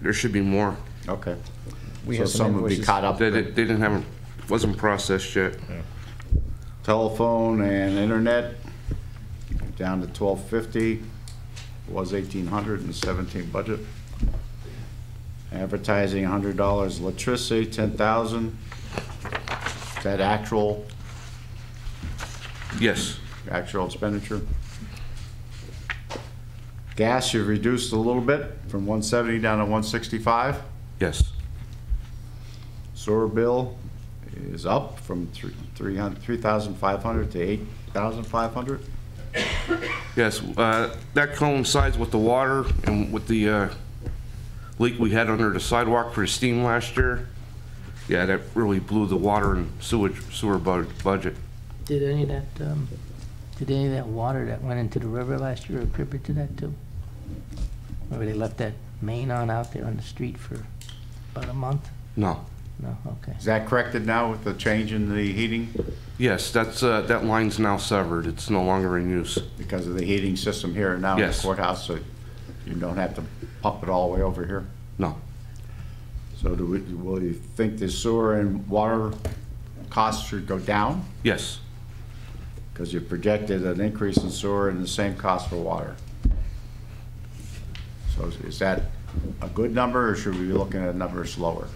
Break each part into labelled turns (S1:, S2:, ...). S1: there should be more.
S2: Okay.
S3: We
S2: So
S3: have some
S2: some would be
S3: invoices.
S2: caught up
S1: They, they
S2: with
S1: didn't have, wasn't processed yet.
S2: telephone and internet, down to twelve fifty, was eighteen hundred and seventeen budget. Advertising, hundred dollars, electricity, ten thousand. Is that actual,
S1: Yes,
S2: actual expenditure? Gas, you've reduced a little bit, from one seventy down to one sixty-five.
S1: yes,
S2: Sewer bill is up from three, three hundred, three thousand five hundred to eight thousand five hundred.
S1: yes. Uh, that coincides with the water and with the, uh, leak we had under the sidewalk for the steam last year. Yeah, that really blew the water and sewage, sewer bud- budget.
S4: Did any of that, um, did any of that water that went into the river last year contribute to that too? Remember they left that main on out there on the street for about a month?
S1: No.
S4: No, okay.
S2: Is that corrected now with the change in the heating,
S1: Yes, that's, uh, that line's now severed. It's no longer in use.
S2: because of the heating system here now in the
S1: Yes.
S2: courthouse, so you don't have to pump it all the way over here?
S1: No.
S2: So do we, will you think the sewer and water costs should go down?
S1: Yes,
S2: Because you projected an increase in sewer and the same cost for water. So is- is that a good number, or should we be looking at numbers lower?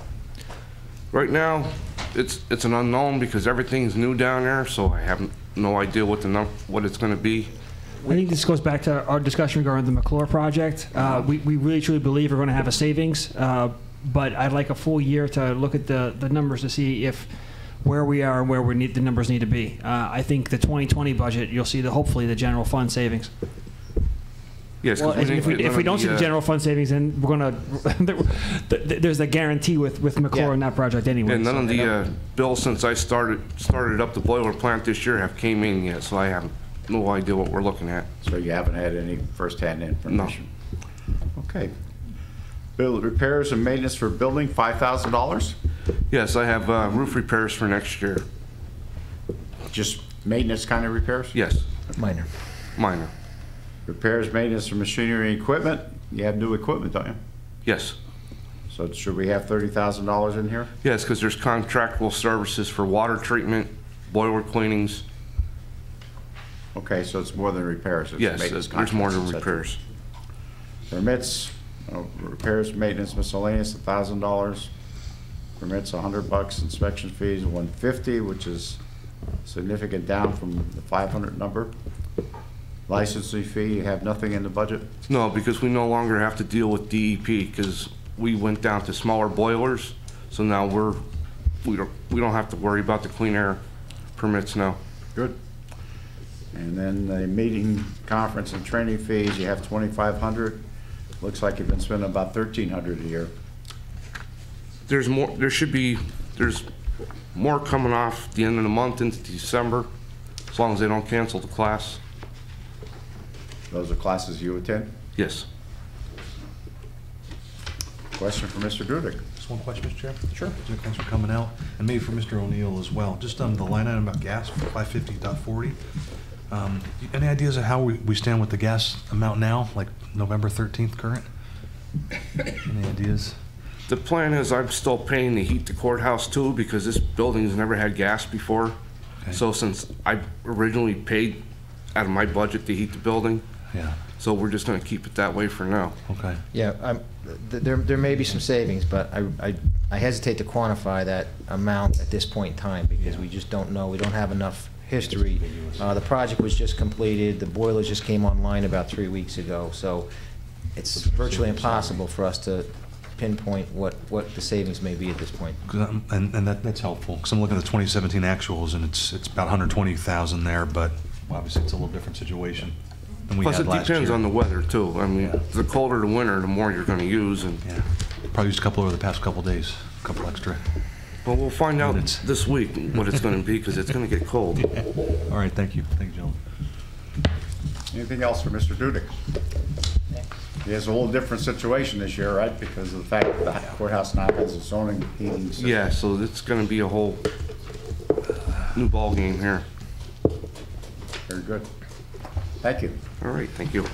S1: Right now, it's, it's an unknown because everything's new down there, so I have no idea what the num, what it's gonna be.
S5: I think this goes back to our discussion regarding the McClure project. Uh, we, we really truly believe we're going to have a savings, uh, but I'd like a full year to look at the, the numbers to see if where we are and where we need the numbers need to be. Uh, I think the 2020 budget, you'll see the hopefully the general fund savings.
S1: Yes, 'cause
S5: Well, if,
S1: didn't
S5: we,
S1: get
S5: if
S1: none
S5: we
S1: of
S5: don't see the
S1: uh,
S5: general fund savings, then we're going to there's a guarantee with with McClure
S2: Yeah.
S5: on that project anyway.
S1: And none
S5: so-
S1: of the, uh, bills since I started, started up the boiler plant this year have came in yet, so I have no idea what we're looking at.
S2: So you haven't had any firsthand information? Okay. Bill, repairs and maintenance for building, five thousand dollars?
S1: Yes, I have, uh, roof repairs for next year.
S2: Just maintenance kind of repairs?
S1: Yes,
S3: Minor.
S1: minor.
S2: Repairs, maintenance for machinery and equipment, you have new equipment, don't you?
S1: Yes.
S2: So should we have thirty thousand dollars in here?
S1: Yes, because there's contractual services for water treatment, boiler cleanings.
S2: Okay, so it's more than repairs. it's
S1: Yes,
S2: maintenance
S1: there's more than
S2: contracts, et cetera.
S1: repairs.
S2: Permits, uh, repairs, maintenance miscellaneous, a thousand dollars. Permits, a hundred bucks, inspection fees, one fifty, which is significant down from the five hundred number. Licensing fee, you have nothing in the budget?
S1: No, because we no longer have to deal with DEP, because we went down to smaller boilers, so now we're, we don't, we don't have to worry about the clean air permits now.
S2: Good. And then the meeting, conference, and training fees, you have twenty-five hundred. Looks like you've been spending about thirteen hundred a year.
S1: There's more, there should be, there's more coming off the end of the month into December, as long as they don't cancel the class.
S2: Those are classes you attend?
S1: Yes.
S2: Question for Mr. Dudek.
S6: Just one question, Mr. Chair. Sure. Thanks for coming out, and maybe for Mr. O'Neill as well. Just on the line item about gas, 550.40. Um, Any ideas of how we we stand with the gas amount now, like November 13th current? Any ideas?
S1: The plan is I'm still paying to heat the courthouse too, because this building's never had gas before.
S6: Okay.
S1: So since I originally paid out of my budget to heat the building,
S6: Yeah,
S1: so we're just gonna keep it that way for now.
S6: okay.
S3: Yeah, I'm, th- there, there may be some savings, but I, I, I hesitate to quantify that amount at this point in time because we just don't know. We don't have enough history. Uh, the project was just completed. The boilers just came online about three weeks ago, so it's virtually impossible for us to pinpoint what, what the savings may be at this point.
S6: 'Cause I'm- And and that that's helpful, because I'm looking at the 2017 actuals, and it's it's about 120,000 there, but obviously it's a little different situation than we
S1: Plus,
S6: had
S1: it
S6: last year.
S1: depends on the weather too. I mean, the colder the winter, the more you're gonna use and,
S6: Yeah, probably used a couple over the past couple days, a couple extra.
S1: well, we'll find out
S6: Minutes.
S1: this week what it's gonna be, because it's gonna get cold.
S6: All right, thank you. Thank you, gentlemen.
S2: Anything else for Mr. Dudek? He has a whole different situation this year, right, because of the fact that the courthouse now has its own heating system.
S1: Yeah, so it's gonna be a whole new ballgame here.
S2: Very good. Thank you.
S1: All right, thank you.